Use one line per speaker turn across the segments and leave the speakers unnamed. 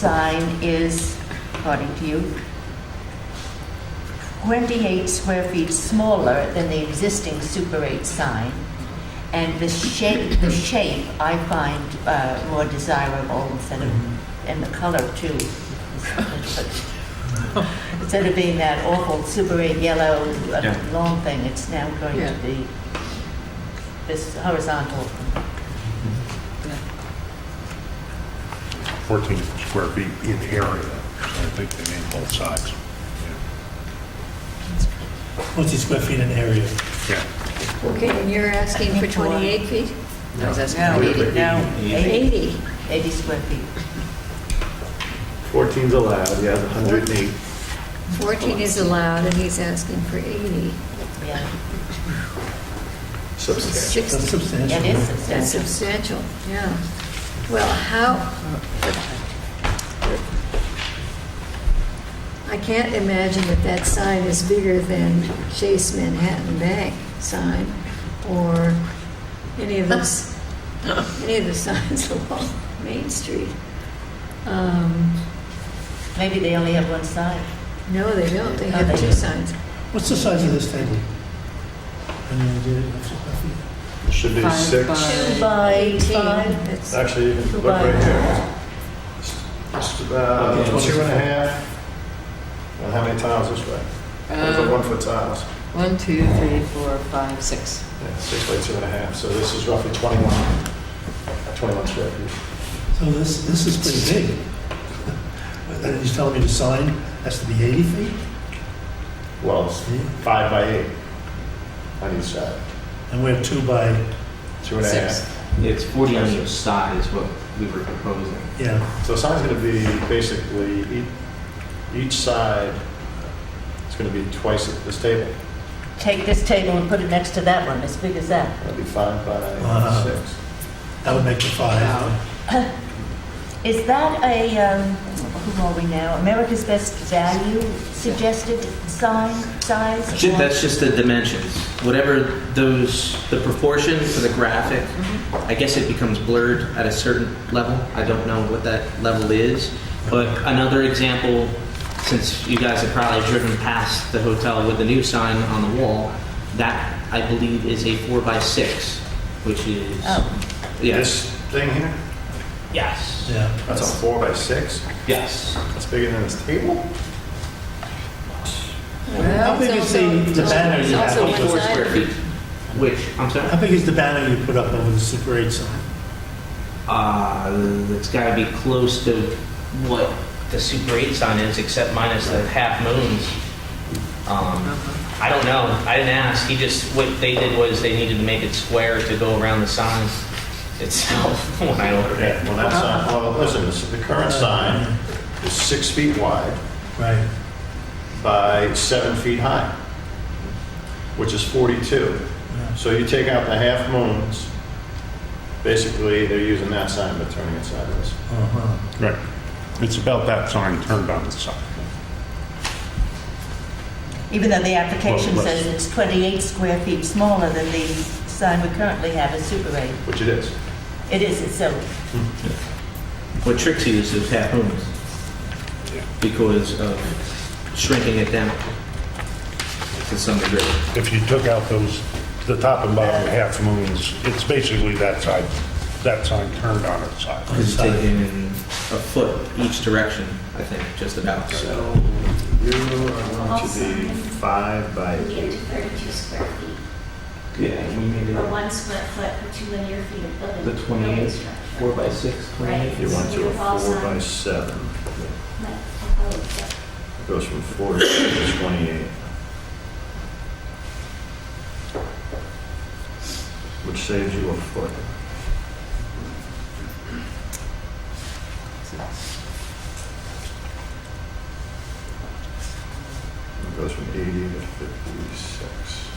sign is, according to you, 28 square feet smaller than the existing Super 8 sign, and the shape, the shape I find uh, more desirable instead of, and the color too. Instead of being that awful Super 8 yellow, uh,
Yeah.
long thing, it's now going
Yeah.
to be this horizontal.
14 square feet in area. I think they mean both sides.
What's the square feet in area?
Yeah.
Okay, and you're asking for 28 feet?
I was asking
No,
for 80.
no, 80,
80?
80 square feet.
14's allowed, yeah, 108.
14 is allowed, and he's asking for 80.
Yeah,
Substantial.
60,
That's substantial.
it is
that's
substantial.
substantial, yeah. Well, how... I can't imagine that that sign is bigger than Chase Manhattan Bank sign, or any of those, any of the signs along Main Street. Um,
Maybe they only have one side.
No, they don't, they
Oh,
have
they
two
don't.
signs.
What's the size of this table? Any idea of square feet?
Should be
Five
six.
by-
Two by
18,
five.
that's-
Actually, you can look right here. It's- It's about
Okay,
two and a half. Well, how many tiles this way? Those are
Um,
one foot tiles.
One, two, three, four, five, six.
Yeah, six by two and a half, so this is roughly 21, 21 square feet.
So this, this is pretty big. And he's telling me the sign has to be 80 feet?
Well, it's five by eight on each side,
And we're two by,
two and a
Six.
half.
It's 40 on each side is what we were proposing.
yeah,
So the sign's going to be basically, ea- each side is going to be twice this table.
Take this table and put it next to that one, as big as that.
That'll be five by
Wow.
six.
that would make the five.
Is that a, um, who are we now, America's Best Value suggested sign, size?
Ju- That's just the dimensions. Whatever those, the proportion for the graphic, I guess it becomes blurred at a certain level. I don't know what that level is. But another example, since you guys have probably driven past the hotel with the new sign on the wall, that I believe is a four by six, which is,
Oh,
yes,
This thing here,
yes,
Yeah,
that's a four by six.
yes.
That's bigger than this table.
How big
It's
is the-
also-
the banner you
it's also
have up
one
for
Four
side.
square feet, which, I'm sorry?
how big is the banner you put up over the Super 8 sign?
Uh, it's got to be close to what the Super 8 sign is, except minus the half moons. Um, I don't know. I didn't ask. He just what they did was they needed to make it square to go around the sign itself when I ordered
Okay,
it.
well, that sign, well, listen, this- the current sign is six feet wide
Right,
by seven feet high, which is 42. So you take out the half moons, basically, they're using that sign but turning it sideways.
uh-huh.
Right. It's about that sign turned on its side.
Even though the application
Well,
says it's 28 square feet smaller than the sign we currently have at Super 8.
Which it is.
It is, it's so,
What tricks you is those half moons because of shrinking it down to some degree.
If you took out those, the top and bottom half moons, it's basically that side, that sign turned on its side.
Because it's taking a foot each direction, I think, just about.
So you are going to be five by
We get
eight.
to 32 square feet,
yeah, we made
or one square foot per two linear feet of building.
The 28,
building structure.
Four by six,
Right.
You want to a four by seven.
Like, proposed, but
It Goes from 40 to 28. Which saves you a foot. It goes from 80 to 56.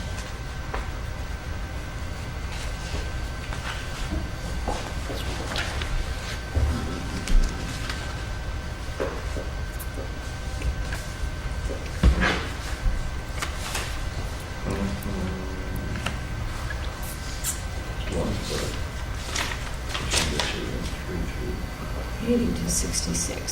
One foot. Which gets you in three feet.
80 to 66.